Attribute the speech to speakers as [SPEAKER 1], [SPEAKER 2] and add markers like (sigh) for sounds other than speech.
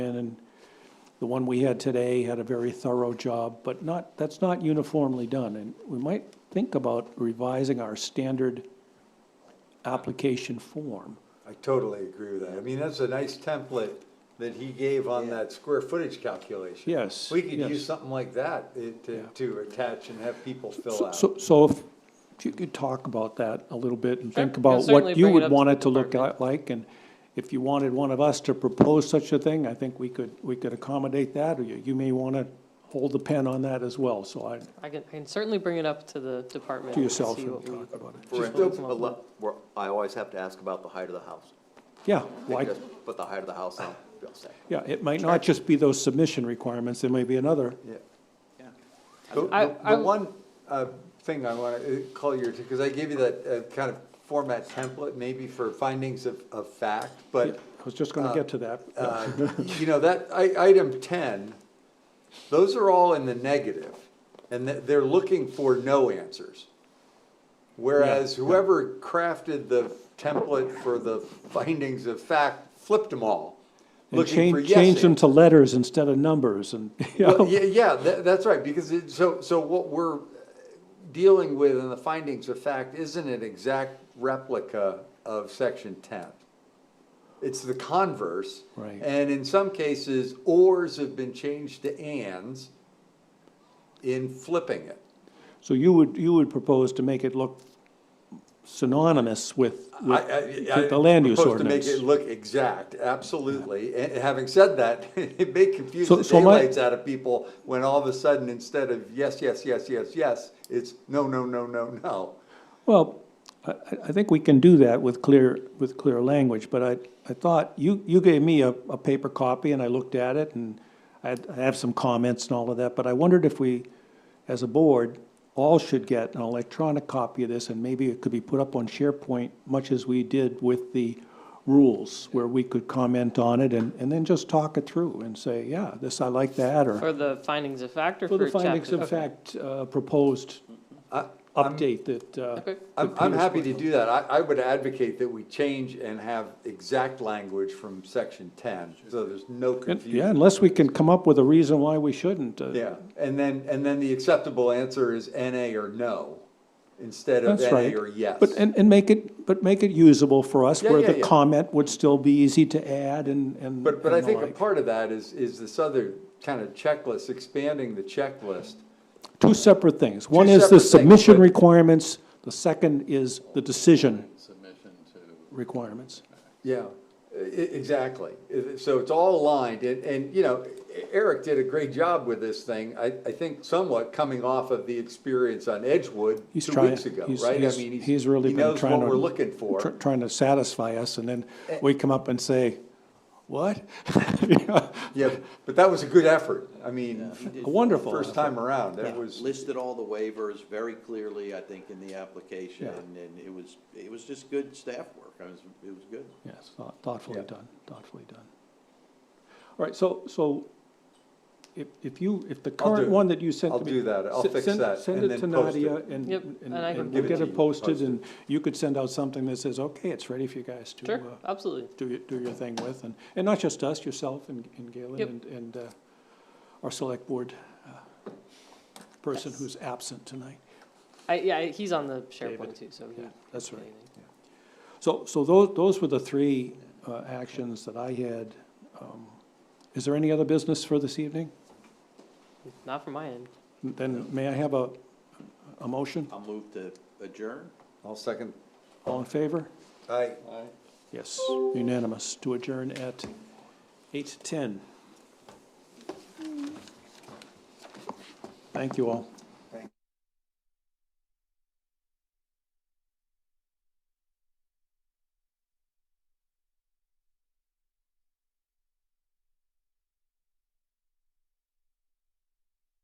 [SPEAKER 1] and the one we had today had a very thorough job, but not, that's not uniformly done. And we might think about revising our standard application form.
[SPEAKER 2] I totally agree with that. I mean, that's a nice template that he gave on that square footage calculation.
[SPEAKER 1] Yes,
[SPEAKER 2] We could
[SPEAKER 1] yes.
[SPEAKER 2] use something like that eh,
[SPEAKER 1] Yeah.
[SPEAKER 2] to, to attach and have people fill
[SPEAKER 1] So-
[SPEAKER 2] out.
[SPEAKER 1] So, so if you could talk about that a little bit and
[SPEAKER 3] Sure.
[SPEAKER 1] think
[SPEAKER 3] We'll
[SPEAKER 1] about
[SPEAKER 3] certainly
[SPEAKER 1] what you
[SPEAKER 3] bring it
[SPEAKER 1] would
[SPEAKER 3] up to
[SPEAKER 1] want
[SPEAKER 3] the
[SPEAKER 1] it to look
[SPEAKER 3] department.
[SPEAKER 1] li- like, and if you wanted one of us to propose such a thing, I think we could, we could accommodate that, or you, you may want to hold the pen on that as well, so I,
[SPEAKER 3] I can, I can certainly bring it up to the department.
[SPEAKER 1] to
[SPEAKER 3] and
[SPEAKER 1] yourself
[SPEAKER 3] see
[SPEAKER 1] and
[SPEAKER 3] what we-
[SPEAKER 1] talk about it.
[SPEAKER 3] Just
[SPEAKER 4] Just
[SPEAKER 3] open
[SPEAKER 4] a
[SPEAKER 3] up.
[SPEAKER 4] lo- we're- I always have to ask about the height of the house.
[SPEAKER 1] Yeah,
[SPEAKER 4] If you
[SPEAKER 1] like,
[SPEAKER 4] just Put the height of the house on, be all set.
[SPEAKER 1] yeah, it might not just be those submission requirements, there may be another.
[SPEAKER 2] Yeah.
[SPEAKER 4] Yeah.
[SPEAKER 2] The,
[SPEAKER 3] I-
[SPEAKER 2] the-
[SPEAKER 3] I-
[SPEAKER 2] the one uh, thing I want to call your, because I gave you that uh, kind of format template maybe for findings of, of fact,
[SPEAKER 1] I
[SPEAKER 2] but
[SPEAKER 1] was just going to get to that.
[SPEAKER 2] uh, you know, that, i- item ten, those are all in the negative, and th- they're looking for no answers. Whereas whoever crafted the template for the findings of fact flipped them all,
[SPEAKER 1] And
[SPEAKER 2] looking for
[SPEAKER 1] change,
[SPEAKER 2] yes
[SPEAKER 1] change them
[SPEAKER 2] answers.
[SPEAKER 1] to letters instead of numbers, and, (laughs) you
[SPEAKER 2] Well,
[SPEAKER 1] know.
[SPEAKER 2] yeah, yeah, tha- that's right, because it, so, so what we're dealing with in the findings of fact isn't an exact replica of section ten. It's the converse.
[SPEAKER 1] Right.
[SPEAKER 2] And in some cases, ors have been changed to ands in flipping it.
[SPEAKER 1] So you would, you would propose to make it look synonymous with,
[SPEAKER 2] I-
[SPEAKER 1] with
[SPEAKER 2] I- I
[SPEAKER 1] the land use
[SPEAKER 2] propose to make
[SPEAKER 1] ordinance?
[SPEAKER 2] it look exact, absolutely. And having said that, (laughs) it may confuse
[SPEAKER 1] So-
[SPEAKER 2] the
[SPEAKER 1] so my-
[SPEAKER 2] daylights out of people when all of a sudden, instead of yes, yes, yes, yes, yes, it's no, no, no, no, no.
[SPEAKER 1] Well, I, I- I think we can do that with clear, with clear language, but I, I thought, you, you gave me a, a paper copy and I looked at it and I, had- I have some comments and all of that, but I wondered if we, as a board, all should get an electronic copy of this and maybe it could be put up on SharePoint, much as we did with the rules, where we could comment on it and, and then just talk it through and say, yeah, this, I like that, or.
[SPEAKER 3] For the findings of fact or
[SPEAKER 1] For the
[SPEAKER 3] for chapter?
[SPEAKER 1] findings of
[SPEAKER 3] Okay.
[SPEAKER 1] fact uh, proposed uh,
[SPEAKER 2] I- I'm-
[SPEAKER 1] update that. uh,
[SPEAKER 3] Okay.
[SPEAKER 2] I'm,
[SPEAKER 1] that
[SPEAKER 2] I'm
[SPEAKER 1] Peter's
[SPEAKER 2] happy to
[SPEAKER 1] put-
[SPEAKER 2] do that. I, I would advocate that we change and have exact language from section ten, so there's no
[SPEAKER 1] And- Yeah,
[SPEAKER 2] confusion.
[SPEAKER 1] unless we can come up with a reason why we shouldn't. uh,
[SPEAKER 2] Yeah, and then, and then the acceptable answer is NA or no, instead of
[SPEAKER 1] That's right.
[SPEAKER 2] NA or yes.
[SPEAKER 1] But, and, and make it, but make it usable for us,
[SPEAKER 2] Yeah,
[SPEAKER 1] where
[SPEAKER 2] yeah,
[SPEAKER 1] the
[SPEAKER 2] yeah.
[SPEAKER 1] comment would still be easy to add and, and.
[SPEAKER 2] But, but I
[SPEAKER 1] and the
[SPEAKER 2] think a
[SPEAKER 1] like.
[SPEAKER 2] part of that is, is this other kind of checklist, expanding the checklist.
[SPEAKER 1] Two separate things. One is
[SPEAKER 2] separate
[SPEAKER 1] the
[SPEAKER 2] things,
[SPEAKER 1] submission
[SPEAKER 2] but-
[SPEAKER 1] requirements, the second is the decision
[SPEAKER 5] submission to,
[SPEAKER 1] requirements.
[SPEAKER 2] Yeah, e- e- exactly. I- So it's all aligned, and, and, you know, E, Eric did a great job with this thing, I, I think somewhat coming off of the experience on Edgewood
[SPEAKER 1] He's
[SPEAKER 2] two
[SPEAKER 1] trying-
[SPEAKER 2] weeks ago,
[SPEAKER 1] he's-
[SPEAKER 2] right? I
[SPEAKER 1] he's-
[SPEAKER 2] mean,
[SPEAKER 1] He's really
[SPEAKER 2] he
[SPEAKER 1] been
[SPEAKER 2] knows
[SPEAKER 1] trying
[SPEAKER 2] what
[SPEAKER 1] to-
[SPEAKER 2] we're looking
[SPEAKER 1] tr-
[SPEAKER 2] for. Eh.
[SPEAKER 1] Trying to satisfy us, and then we come up and say, what? (laughs)
[SPEAKER 2] Yeah, but that was a good effort. I mean,
[SPEAKER 1] Wonderful.
[SPEAKER 2] (laughs) first time around, that
[SPEAKER 1] Yeah.
[SPEAKER 2] was,
[SPEAKER 6] listed all the waivers very clearly, I think, in the application, and it was, it was just good staff work, I was, it was good.
[SPEAKER 1] Yes, thought- thoughtfully
[SPEAKER 2] Yeah.
[SPEAKER 1] done, thoughtfully done. All right, so, so if, if you, if the
[SPEAKER 2] do
[SPEAKER 1] current
[SPEAKER 2] it.
[SPEAKER 1] one that you sent
[SPEAKER 2] I'll
[SPEAKER 1] to me.
[SPEAKER 2] do that. I'll
[SPEAKER 1] se-
[SPEAKER 2] fix
[SPEAKER 1] send-
[SPEAKER 2] that and then
[SPEAKER 1] Send
[SPEAKER 2] post it.
[SPEAKER 1] it to Nadia and,
[SPEAKER 3] Yep,
[SPEAKER 1] and-
[SPEAKER 3] and I can-
[SPEAKER 1] and
[SPEAKER 2] Give
[SPEAKER 1] we'll
[SPEAKER 2] it
[SPEAKER 1] get
[SPEAKER 2] to
[SPEAKER 1] it
[SPEAKER 2] you,
[SPEAKER 1] posted
[SPEAKER 2] post it.
[SPEAKER 1] and you could send out something that says, okay, it's ready for you guys to,
[SPEAKER 3] Sure,
[SPEAKER 1] uh,
[SPEAKER 3] absolutely.
[SPEAKER 1] do your, do your thing with. And, and not just us, yourself and and Galen
[SPEAKER 3] Yep.
[SPEAKER 1] and, and uh, our select board uh, person who's absent tonight.
[SPEAKER 3] I, yeah, I- he's on the SharePoint too, so. he-
[SPEAKER 1] Yeah, that's right.
[SPEAKER 3] anything.
[SPEAKER 1] So, so those, those were the three uh, actions that I had. Um, Is there any other business for this evening?
[SPEAKER 3] Not from my end.
[SPEAKER 1] Then may I have a, a motion?
[SPEAKER 6] I'll move to adjourn.
[SPEAKER 2] I'll second.
[SPEAKER 1] All in favor?
[SPEAKER 2] Aye.
[SPEAKER 1] Yes, unanimous to adjourn at eight ten. Thank you all.